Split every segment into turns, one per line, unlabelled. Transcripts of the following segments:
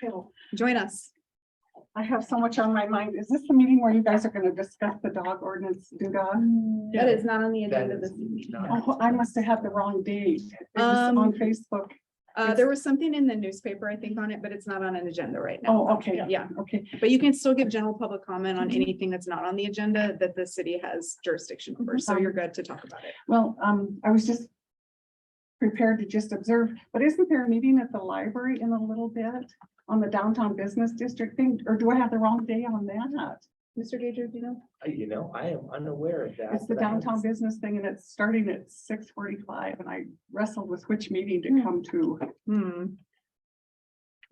Phil,
Join us.
I have so much on my mind. Is this the meeting where you guys are gonna discuss the dog ordinance doodah?
Mm, That is not on the
That
agenda
is
this evening.
not-
Oh, I must have had the wrong date. It was
Um,
on Facebook.
Uh, there was something in the newspaper, I think, on it, but it's not on an agenda right now.
Oh, okay,
Yeah,
okay.
but you can still give general public comment on anything that's not on the agenda that the city has jurisdiction over, so you're good to talk about it.
Well, um, I was just prepared to just observe, but isn't there a meeting at the library in a little bit on the downtown business district thing? Or do I have the wrong day on that?
Mr. Gager, do you know?
I- You know, I am unaware of that.
It's the
but I haven't
downtown business thing and it's starting at six forty-five and I wrestled with which meeting to come to.
Hmm.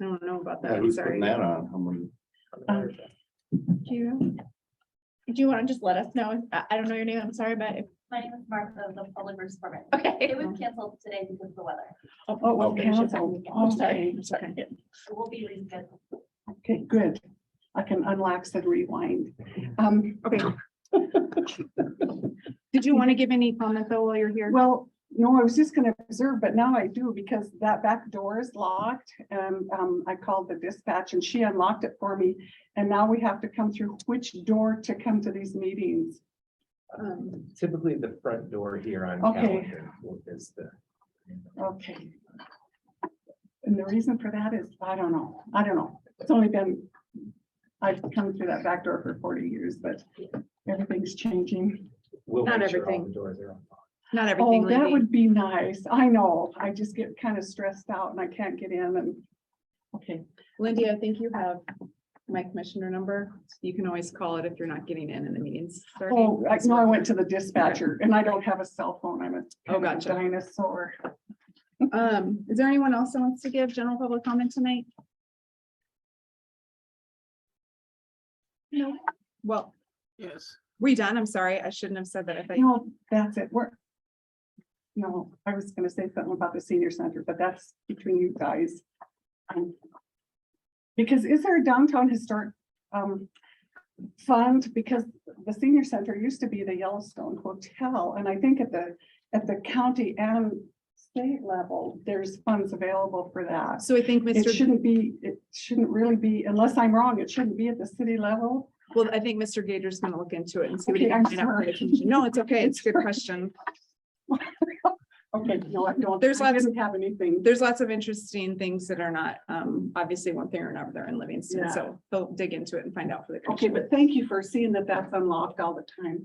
I don't know about that,
Yeah,
I'm
who's
sorry.
putting that on? How many-
seen it unaware of that.
Do you, do you want to just let us know? I, I don't know your name. I'm sorry, but if,
My name is Martha, the Public Works Department.
okay.
It was canceled today because of the weather.
Oh, it was
Okay.
canceled.
I'm sorry.
Okay.
I'm sorry.
It will be rescheduled.
Okay, good. I can unlax and rewind. Um,
Okay. Did you want to give any comment though while you're here?
well, no, I was just gonna observe, but now I do because that back door is locked and um, I called the dispatch and she unlocked it for me. And now we have to come through which door to come to these meetings.
Um,
Typically, the front door here on
Okay.
Callahan is the.
Okay. And the reason for that is, I don't know, I don't know. It's only been, I've come through that back door for forty years, but everything's changing.
We'll
Not
make sure all
everything.
the doors are on.
Not everything,
Oh, that
Lindy.
would be nice. I know. I just get kind of stressed out and I can't get in and. Okay,
Lindy, I think you have my commissioner number. You can always call it if you're not getting in and the meeting's starting.
oh, I know I went to the dispatcher and I don't have a cell phone. I'm a
Oh,
kind of a
gotcha.
dinosaur.
Um, is there anyone else that wants to give general public comment tonight? No. Well. Yes. We done? I'm sorry. I shouldn't have said that. I thought, you-
No, that's it. We're. No, I was gonna say something about the senior center, but that's between you guys. Um, Because is there a downtown historic um fund? Because the senior center used to be the Yellowstone Hotel, and I think at the, at the county and state level, there's funds available for that.
so I think
It
Mr.
shouldn't be, it shouldn't really be, unless I'm wrong, it shouldn't be at the city level.
Well, I think Mr. Gager's gonna look into it and see what he
Okay,
can
I'm
find out. for the
sorry.
commission. No, it's okay. It's a good question.
Okay, no, I don't,
There's
I
lots of-
didn't have anything.
There's lots of interesting things that are not, um, obviously one thing or another in Livingston,
Yeah.
so they'll dig into it and find out for the.
Okay,
commission.
but thank you for seeing that that's unlocked all the time.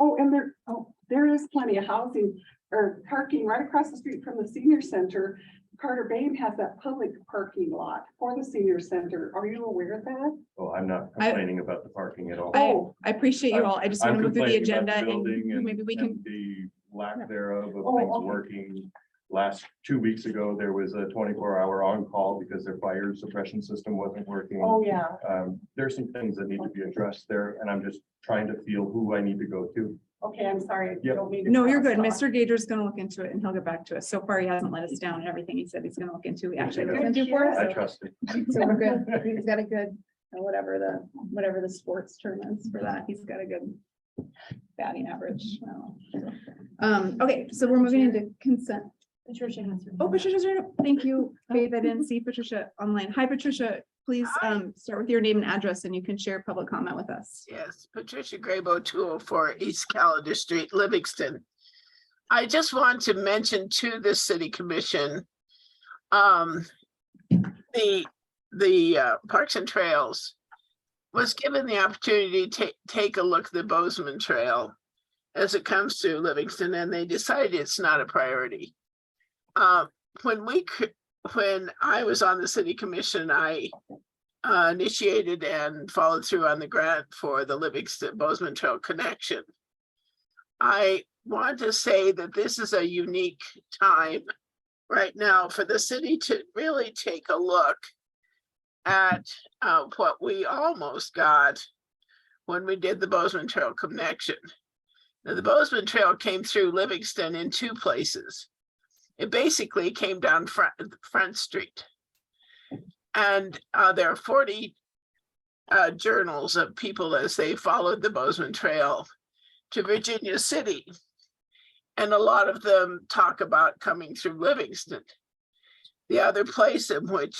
Oh, and there, oh, there is plenty of housing or parking right across the street from the senior center. Carter Bain has that public parking lot for the senior center. Are you aware of that?
Oh, I'm not
I-
complaining about the parking at all.
I,
Oh,
I appreciate you
I'm-
all. I just want
I'm
to move through the
complaining about
agenda
the building
and
and-
maybe we can,
and The lack thereof of
Oh,
things
okay.
working. Last, two weeks ago, there was a twenty-four hour on-call because their fire suppression system wasn't working.
oh, yeah.
Um, there's some things that need to be addressed there, and I'm just trying to feel who I need to go to.
Okay, I'm sorry. I
Yep.
don't mean to
no, you're
cross
good.
talk.
Mr. Gager's gonna look into it and he'll get back to us. So far, he hasn't let us down and everything he said he's gonna look into, he actually looked into for us.
I trust it.
So we're good. He's got a good, uh, whatever the, whatever the sports term is for that, he's got a good batting average. I don't know. Um, okay, so we're moving into consent.
Patricia has her.
Oh, Patricia's right up. Thank you, Faith. I didn't see Patricia online. Hi, Patricia. Please, um, start with your name and address and you can share public comment with us.
Yes, Patricia Grabo, two oh four East Calendar Street, Livingston. I just want to mention to the city commission. Um, the, the uh, Parks and Trails was given the opportunity to take a look at the Bozeman Trail as it comes to Livingston, and they decided it's not a priority. Uh, when we, cr- when I was on the city commission, I uh, initiated and followed through on the grant for the Livingston Bozeman Trail connection. I want to say that this is a unique time right now for the city to really take a look at uh, what we almost got when we did the Bozeman Trail connection. Now, the Bozeman Trail came through Livingston in two places. It basically came down Front, Front Street. And uh, there are forty uh, journals of people as they followed the Bozeman Trail to Virginia City. And a lot of them talk about coming through Livingston. the other place in which